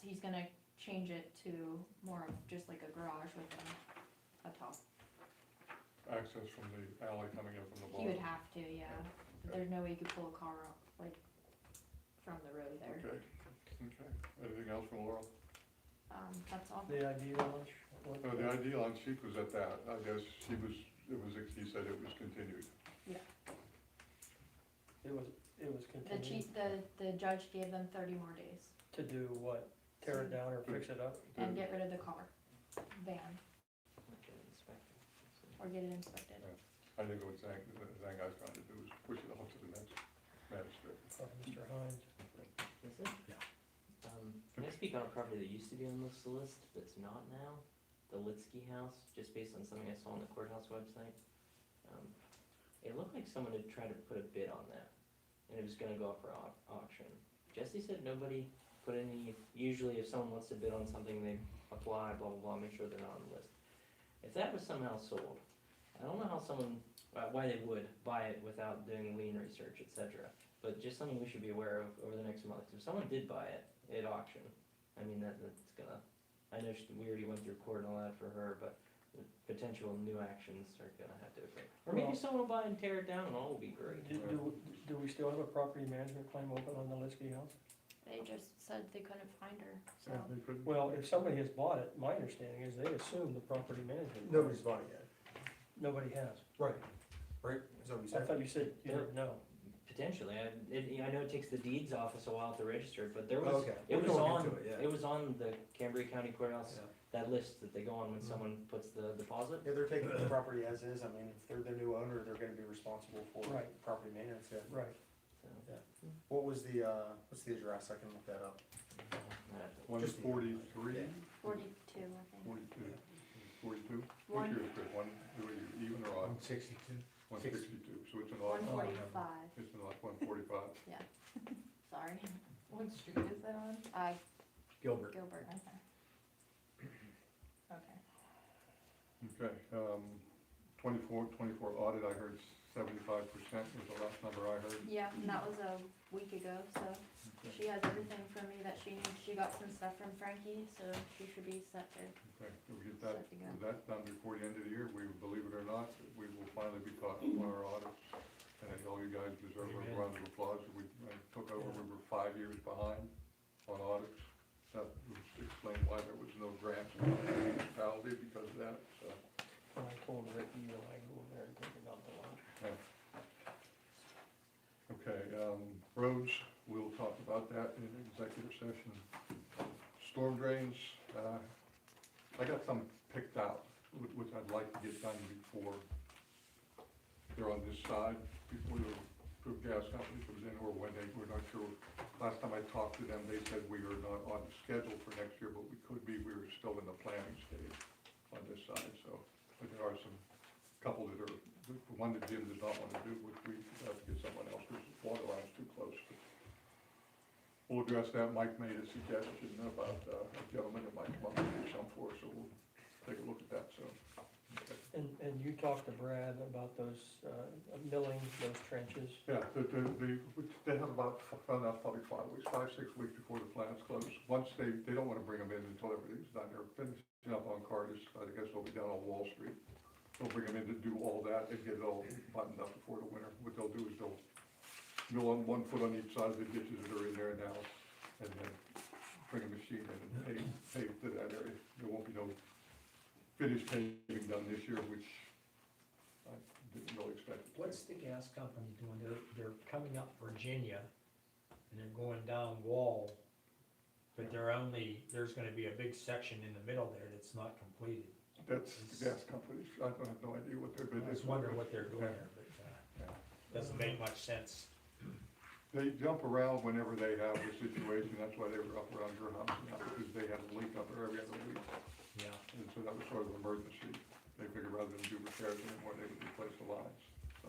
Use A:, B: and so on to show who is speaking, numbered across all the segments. A: he's gonna change it to more of just like a garage with a, a top.
B: access from the alley coming in from the
A: He would
B: barn.
A: have to, yeah, there's no way you could pull a car up, like, from the road there,
B: Okay, okay. Anything else from Laurel?
A: um, that's all.
C: The idea launch? what-
B: Oh, the idea on sheet was at that. I guess she was, it was, he said it was continued.
C: It was, it was
A: The
C: continued
A: chief, the, the judge gave them thirty more days
C: to do what? Tear it down or fix it up?
B: Mm.
A: and get rid of the car, van, or get it inspected.
B: I think what Zhang, Zhang Guy's trying to do is push it off to the next magistrate.
C: Or Mr. Hines?
D: Is it? Um, can I speak on a property that used to be on this list that's not now? The Litsky House, just based on something I saw on the courthouse website. Um, it looked like someone had tried to put a bid on that, and it was gonna go up for au- auction. Jesse said nobody put any, usually if someone wants to bid on something, they apply, blah, blah, blah, make sure they're not on the list. If that was somehow sold, I don't know how someone, uh, why they would buy it without doing lien research, et cetera but just something we should be aware of over the next month. If someone did buy it at auction, I mean, that, that's gonna, I know she- we already went through court and all that for her, but the potential new actions are gonna have to occur. Or maybe
C: Well-
D: someone will buy and tear it down and all will be great.
C: Do, do, do we still have a property management claim open on the Liskey House?
A: They just said they couldn't find her, so.
B: They couldn't-
C: Well, if somebody has bought it, my understanding is they assume the property management.
E: Nobody's bought it yet.
C: Nobody has.
E: Right. Right, is that what you
C: I
E: said?
C: thought you said you didn't know.
D: Potentially, I, it, I know it takes the deeds office a while to register, but there
E: Oh,
D: was,
E: Okay.
D: it
E: We're
D: was
E: going
D: on,
E: into it,
D: it was on the Cambria County Courthouse,
E: Yeah.
D: that list that they go on when
E: Mhm.
D: someone puts the deposit.
F: Yeah, they're taking the property as is, I mean, if they're the new owner, they're gonna be responsible for
C: Right.
F: property maintenance, yeah.
C: Right.
D: So,
F: What was the, uh, what's the address, I can look that up.
D: I'd have to-
B: One
E: Just-
B: forty-three,
E: Yeah.
A: Forty-two, I think.
B: forty-two, forty-two? What's
A: One,
B: your, script? one, what are you, even or odd?
E: One sixty-two.
B: One
E: Six.
B: sixty-two, so it's an
A: one
B: odd,
E: Oh, forty.
A: forty-five,
B: it's an odd one forty-five.
A: sorry.
G: What street is that on?
A: Uh,
E: Gilbert.
A: Gilbert,
G: Okay.
B: Okay, um, twenty-four, twenty-four audit, I heard seventy-five percent was the last number I heard.
A: yeah, and that was a week ago, so she has everything from me that she needs, she got some stuff from Frankie, so she should be set to,
B: Okay, if we get that,
A: set to go.
B: if that's done before the end of the year, we, believe it or not, we will finally be caught up on our audits. And I all you guys deserve a
C: Amen.
B: round of applause, we I took over, we were five years behind on audits. That explained why there was no grants in the municipality because of that, so.
C: And I told Ricky, you know, I go over there and think about the launch.
B: Okay, um, roads, we'll talk about that in executive session. Storm drains, uh, I got some picked out, wh- which I'd like to get done before they're on this side, before the group gas company comes in, or when they, we're not sure. Last time I talked to them, they said we are not on schedule for next year, but we could be, we were still in the planning stage on this side, so. But there are some, couple that are the the one that Jim does not want to do, which we have to get someone else, because the water line's too close. We'll address that, Mike made a suggestion about uh, a gentleman that might come up and do some for us, so we'll take a look at that soon. Okay.
C: And, and you talked to Brad about those, uh, milling, those trenches.
B: Yeah, the, the, the- which they have about, f- about probably five weeks, five, six weeks before the plants close. Once they, they don't want to bring them in until everything's done, they're finishing up on Cardis, I guess they'll be down on Wall Street. They'll bring them in to do all that and get it all buttoned up before the winter. What they'll do is they'll mill on one foot on each side of the ditches that are in there now, and then bring a machine in and pave, pave to that area. There won't be no finished paving done this year, which I didn't really expect.
H: What's the gas company doing? They're, they're coming up Virginia and they're going down Wall. But they're only, there's gonna be a big section in the middle there that's not completed.
B: That's the gas companies, I don't have no idea what they're
H: I
B: bidding.
H: was wondering what they're doing there, but, uh, doesn't make much sense.
B: They jump around whenever they have the situation, that's why they were up around your house, now, because they had a leak up there every other week.
H: Yeah,
B: And so that was sort of an emergency, they figured rather than do repairs anymore, they would replace the lines, so.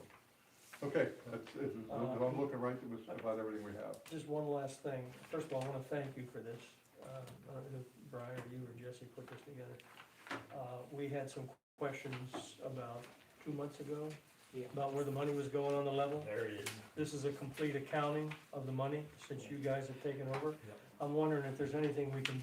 B: Okay, that's, it.
H: Uh,
B: I'm looking right through this about everything we have.
C: Just one last thing. First of all, I wanna thank you for this. Uh, I don't know if Brian or you or Jesse put this together. Uh, we had some questions about two months ago.
D: Yeah.
C: About where the money was going on the level.
H: there it is.
C: This is a complete accounting of the money since you guys have taken over.
H: Yep.
C: I'm wondering if there's anything we can